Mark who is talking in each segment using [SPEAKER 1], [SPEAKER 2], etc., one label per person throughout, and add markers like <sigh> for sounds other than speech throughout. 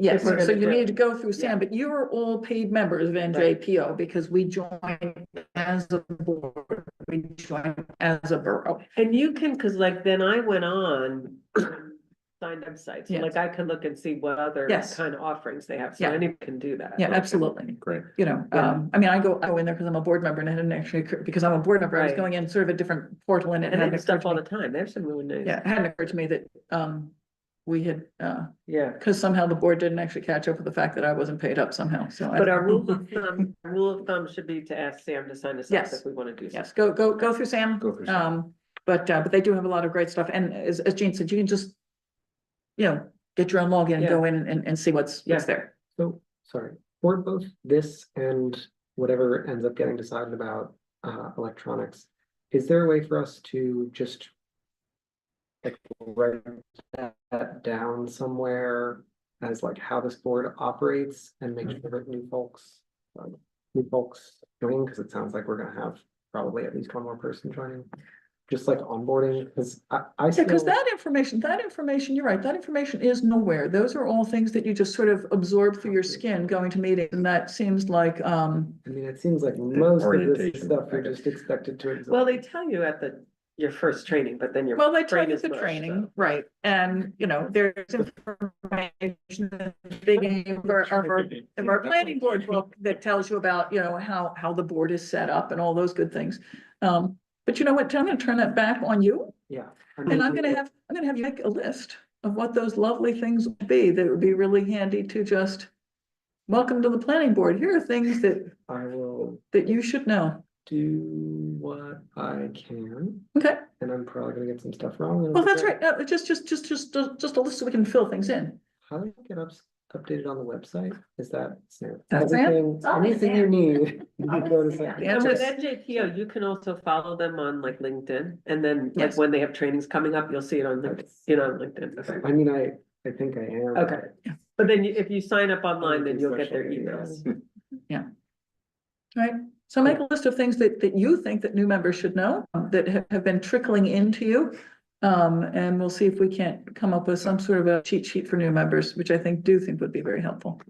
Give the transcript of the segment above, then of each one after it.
[SPEAKER 1] Yes,
[SPEAKER 2] we're
[SPEAKER 1] so
[SPEAKER 2] gonna
[SPEAKER 1] you
[SPEAKER 2] do it.
[SPEAKER 1] need to go through Sam,
[SPEAKER 2] Yeah.
[SPEAKER 1] but you are all paid members of NJPO because we joined as a board, we joined as a borough.
[SPEAKER 2] And you can, cause like then I went on <coughs> signed up sites, so
[SPEAKER 1] Yes.
[SPEAKER 2] like I can look and see what other
[SPEAKER 1] Yes.
[SPEAKER 2] kind of offerings they have, so
[SPEAKER 1] Yeah.
[SPEAKER 2] anyone can do that.
[SPEAKER 1] Yeah, absolutely.
[SPEAKER 3] Great.
[SPEAKER 1] You know,
[SPEAKER 2] Yeah.
[SPEAKER 1] um, I mean, I go, I go in there because I'm a board member and I didn't actually, occur- because I'm a board member, I was
[SPEAKER 2] Right.
[SPEAKER 1] going in sort of a different portal and it
[SPEAKER 2] And they
[SPEAKER 1] hadn't
[SPEAKER 2] have
[SPEAKER 1] occurred
[SPEAKER 2] stuff
[SPEAKER 1] to
[SPEAKER 2] all
[SPEAKER 1] me.
[SPEAKER 2] the time, there's some really nice.
[SPEAKER 1] Yeah, it hadn't occurred to me that, um, we had, uh,
[SPEAKER 2] Yeah,
[SPEAKER 1] because somehow the board didn't actually catch up with the fact that I wasn't paid up somehow, so. I
[SPEAKER 2] but our rule of thumb, our rule of thumb should be to ask Sam to sign us up
[SPEAKER 1] Yes.
[SPEAKER 2] if we wanna do
[SPEAKER 1] Yes,
[SPEAKER 2] something.
[SPEAKER 1] go, go, go through Sam.
[SPEAKER 3] Go through Sam.
[SPEAKER 1] Um, but, uh, but they do have a lot of great stuff. And as, as Jean said, you can just, you know, get your own login and
[SPEAKER 2] Yeah.
[SPEAKER 1] go in and, and see what's, what's
[SPEAKER 2] Yeah.
[SPEAKER 1] there.
[SPEAKER 4] So, sorry, for both this and whatever ends up getting decided about uh electronics, is there a way for us to just? Like write that- that down somewhere as like how this board operates and make sure that new folks. um, New folks join, because it sounds like we're gonna have probably at least one more person joining, just like onboarding, because I I
[SPEAKER 1] Yeah, because
[SPEAKER 4] still.
[SPEAKER 1] that information, that information, you're right, that information is nowhere. Those are all things that you just sort of absorb through your skin going to meetings. And that seems like, um,
[SPEAKER 4] I mean, it seems like most of this
[SPEAKER 3] orientation
[SPEAKER 4] stuff you're
[SPEAKER 3] package.
[SPEAKER 4] just expected to. absorb.
[SPEAKER 2] Well, they tell you at the, your first training, but then you're.
[SPEAKER 1] well, they tell
[SPEAKER 2] brain
[SPEAKER 1] you
[SPEAKER 2] is
[SPEAKER 1] the
[SPEAKER 2] mush,
[SPEAKER 1] training,
[SPEAKER 2] so.
[SPEAKER 1] right? And, you know, there's information, at the beginning of our, of our of our planning board book that tells you about, you know, how, how the board is set up and all those good things. Um, but you know what, Tim, I'm gonna turn that back on you
[SPEAKER 4] Yeah.
[SPEAKER 1] and I'm gonna have, I'm gonna have you make a list of what those lovely things would be that would be really handy to just welcome to the planning board. Here are things that,
[SPEAKER 4] I will
[SPEAKER 1] that you should know.
[SPEAKER 4] do what I can,
[SPEAKER 1] Okay,
[SPEAKER 4] and I'm probably gonna get some stuff wrong. and
[SPEAKER 1] well, Oh, that's
[SPEAKER 4] it'll
[SPEAKER 1] right.
[SPEAKER 4] be
[SPEAKER 1] No, just, just, just, just, just a list so we can fill things in.
[SPEAKER 4] great. How do you get ups, updated on the website? Is that? Sam?
[SPEAKER 1] That's Sam.
[SPEAKER 4] Everything-
[SPEAKER 1] It's always
[SPEAKER 4] Anything you need. <laughs> you can go to Sam.
[SPEAKER 1] Yeah,
[SPEAKER 2] And with
[SPEAKER 1] just-
[SPEAKER 2] NJPO, you can also follow them on like LinkedIn, and then like
[SPEAKER 1] Yes.
[SPEAKER 2] when they have trainings coming up, you'll see it on, Link- you know, on LinkedIn. Okay.
[SPEAKER 4] I mean, I, I think I am.
[SPEAKER 2] Okay, but then you- if you sign up online, then
[SPEAKER 4] do
[SPEAKER 2] you'll get their
[SPEAKER 4] social media. <laughs>
[SPEAKER 2] emails.
[SPEAKER 1] Right, so make a list of things that, that you think that new members should know, um, that have, have been trickling into you. Um, and we'll see if we can't come up with some sort of a cheat sheet for new members, which I think, do think would be very helpful.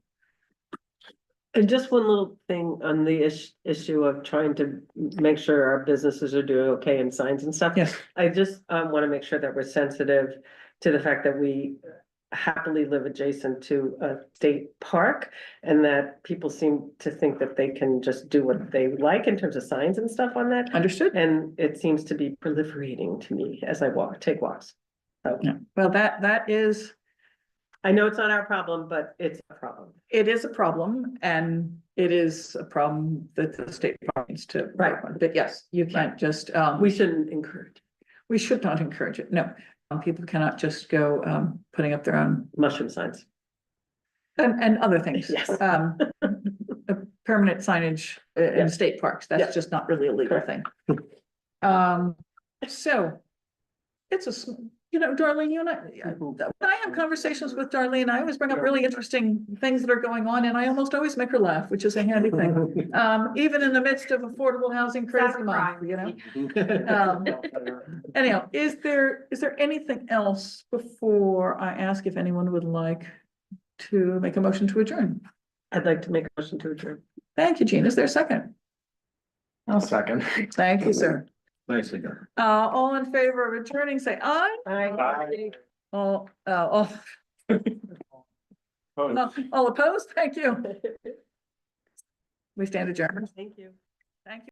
[SPEAKER 2] And just one little thing on the ish, issue of trying to make sure our businesses are doing okay in signs and stuff.
[SPEAKER 1] Yes.
[SPEAKER 2] I just um wanna make sure that we're sensitive to the fact that we happily live adjacent to a state park. And that people seem to think that they can just do what they like in terms of signs and stuff on that.
[SPEAKER 1] Understood?
[SPEAKER 2] And it seems to be proliferating to me as I walk, take walks. So
[SPEAKER 1] Yeah. Well, that, that is,
[SPEAKER 2] I know it's not our problem, but it's a problem.
[SPEAKER 1] it is a problem and it is a problem that the state needs to. work on. But yes, you can't just, um,
[SPEAKER 2] We
[SPEAKER 1] we,
[SPEAKER 2] shouldn't encourage
[SPEAKER 1] we should not encourage it, no. Um, People cannot just go, um, putting up their own
[SPEAKER 2] mushroom signs.
[SPEAKER 1] And, and other things.
[SPEAKER 2] Yes.
[SPEAKER 1] <laughs> Um, a permanent signage i-
[SPEAKER 2] Yeah.
[SPEAKER 1] in state parks,
[SPEAKER 2] Yeah.
[SPEAKER 1] that's just not really a legal thing. Um, so it's a, sm- you know, Darlene, you and I, I- when I have conversations with Darlene, I always bring up
[SPEAKER 2] Yeah.
[SPEAKER 1] really interesting things that are going on and I almost always make her laugh, which is a handy
[SPEAKER 4] Mm-hmm.
[SPEAKER 1] thing.
[SPEAKER 4] <laughs>
[SPEAKER 1] Um, even in the midst of affordable housing crazy month, you know? Um, Anyhow, is there, is there anything else before I ask if anyone would like to make a motion to adjourn?
[SPEAKER 2] I'd like to make a motion to adjourn.
[SPEAKER 1] Thank you, Gene. Is there a second?
[SPEAKER 3] I'll second.
[SPEAKER 1] Thank you, sir.
[SPEAKER 3] Nicely done.
[SPEAKER 1] Uh, all in favor of returning, say aye. All, uh, all, <laughs> all opposed? Thank you. We stand adjourned.
[SPEAKER 2] <laughs> Thank you.